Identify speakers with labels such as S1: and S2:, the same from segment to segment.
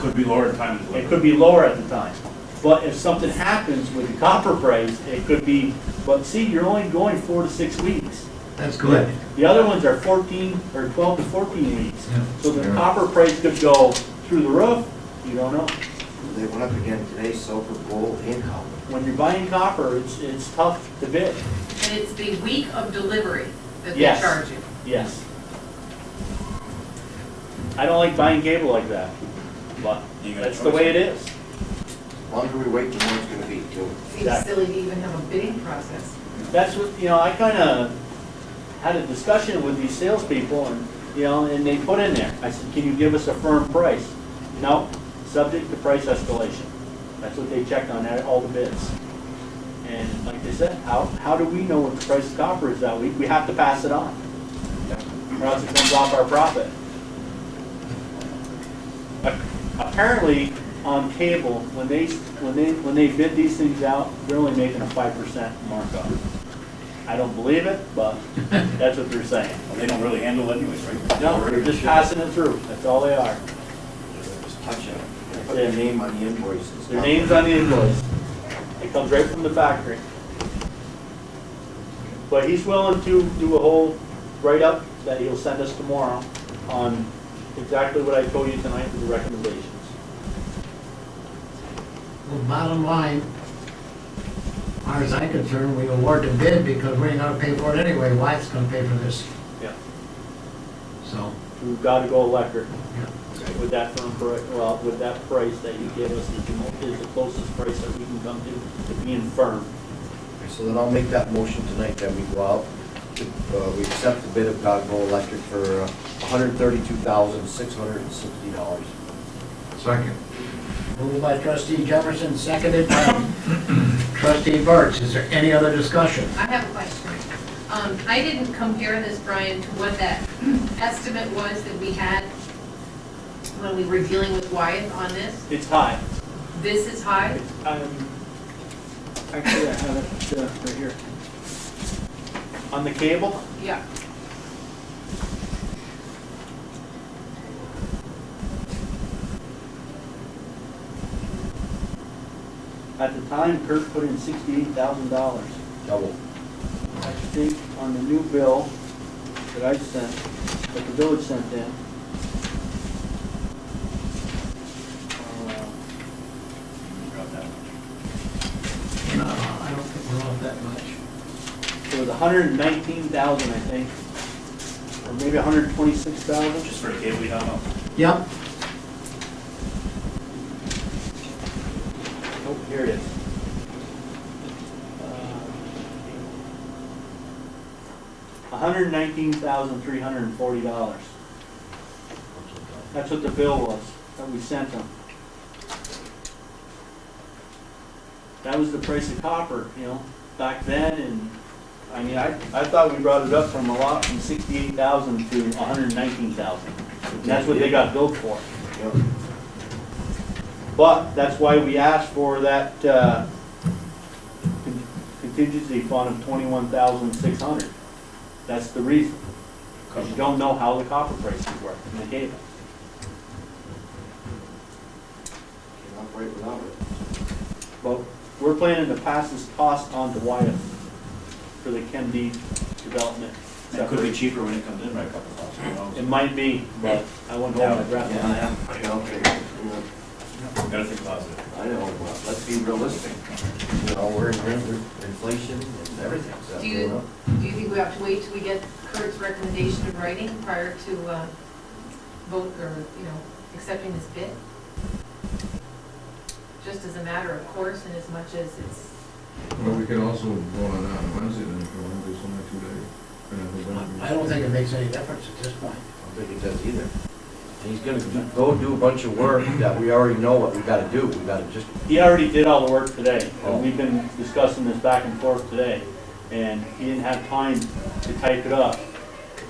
S1: Could be lower in time of
S2: It
S1: delivery.
S2: could be lower at the time. But if something happens with the copper price, it could be, but see, you're only going four to six weeks.
S3: That's good.
S2: The other ones are fourteen, or twelve to fourteen weeks.
S3: Yeah.
S2: So the copper price could go through the roof, you don't know.
S4: They went up again today, silver, gold, and copper.
S2: When you're buying copper, it's, it's tough to bid,
S5: And it's the week of delivery that they
S2: Yes.
S5: charge you.
S2: yes. I don't like buying cable like that, but
S1: You got a
S2: that's the way it is.
S4: Longer we wait, the more it's gonna be, too.
S5: Seems silly to even have a bidding process.
S2: That's what, you know, I kind of had a discussion with these salespeople and, you know, and they put in there, I said, can you give us a firm price? No, subject to price escalation. That's what they checked on that, all the bids. And like they said, how, how do we know what the price of copper is that week? We have to pass it on. Or else it comes off our profit. Ap- Apparently, on cable, when they, when they, when they bid these things out, they're only making a five percent markup. I don't believe it, but that's what they're saying.
S1: Well, They don't really handle it anyways, right?
S2: No, they're just passing it through, that's all they are.
S4: Just touch it. Put their name on the invoices.
S2: Their name's on the invoice. It comes right from the factory. But he's willing to do a whole write-up that he'll send us tomorrow on exactly what I told you tonight with the recommendations.
S3: Well, bottom line, as far as I'm concerned, we award the bid because we ain't gonna pay for it anyway. Wyatt's gonna pay for this,
S2: Yeah.
S3: so.
S2: We've got to go electric
S3: yeah.
S2: with that firm, pri- well, with that price that you gave us is the mo- is the closest price that we can come to, to being firm.
S4: So then I'll make that motion tonight that we go out, to, uh, we accept the bid of Godgo Electric for uh, hundred thirty-two thousand, six hundred and sixty dollars.
S6: Second.
S3: Moved by trustee Jefferson, seconded by trustee Burks. Is there any other discussion?
S5: I have a question. Um, I didn't compare this, Brian, to what that estimate was that we had when we were dealing with Wyeth on this.
S2: It's high.
S5: This is high.
S2: It's, um, Actually, I have it uh, right here. On the cable,
S5: Yeah.
S2: At the time, Kurt put in sixty-eight thousand dollars.
S4: Double.
S2: I think on the new bill that I sent, that the village sent in. uh,
S1: Drop that one.
S3: No, I don't think we're off that much.
S2: It was a hundred and nineteen thousand, I think, or maybe a hundred and twenty-six thousand.
S1: Just for a cable, we don't know.
S3: Yep,
S2: Oh, here it is. hundred and nineteen thousand, three hundred and forty dollars. That's what the bill was, that we sent them. That was the price of copper, you know, back then, and, I mean, I, I thought we brought it up from a lot, from sixty-eight thousand to hundred and nineteen thousand. That's what they got billed for.
S4: Yep.
S2: But that's why we asked for that uh, con- contingency fund of twenty-one thousand six hundred. That's the reason, because you don't know how the copper prices work in the data.
S4: Can't operate without it.
S2: But we're planning to pass this cost on to Wyeth for the Chem D development.
S1: And It could be cheaper when it comes in by a couple bucks, who knows?
S2: It might be, but I wouldn't hold my breath on that.
S4: Yeah, okay. Yeah,
S1: Gotta think positive.
S4: I know, but let's be realistic. You know, we're in we're- inflation and everything's up
S5: Do
S4: going
S5: you,
S4: up.
S5: do you think we have to wait till we get Kurt's recommendation in writing prior to, uh, vote or, you know, accepting this bid? Just as a matter of course and as much as it's,
S6: Well, we could also vote on that on Wednesday then if we want to do something today. And if we don't do-
S3: I don't think it makes any difference at this point.
S4: I don't think it does either. And he's gonna do- go do a bunch of work that we already know what we gotta do. We gotta just
S2: He already did all the work today,
S1: Oh.
S2: and we've been discussing this back and forth today, and he didn't have time to type it up.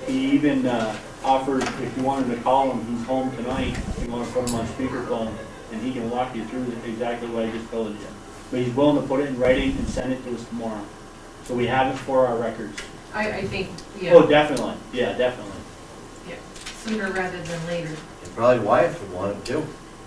S2: He even uh, offered, if you wanted to call him, he's home tonight, if you want to put him on speakerphone, and he can walk you through exactly what I just told you. But he's willing to put it in writing and send it to us tomorrow, so we have it for our records.
S5: I, I think,
S2: Oh,
S5: yeah,
S2: definitely, yeah, definitely.
S5: sooner rather than later.
S4: Probably Wyatt would want it too.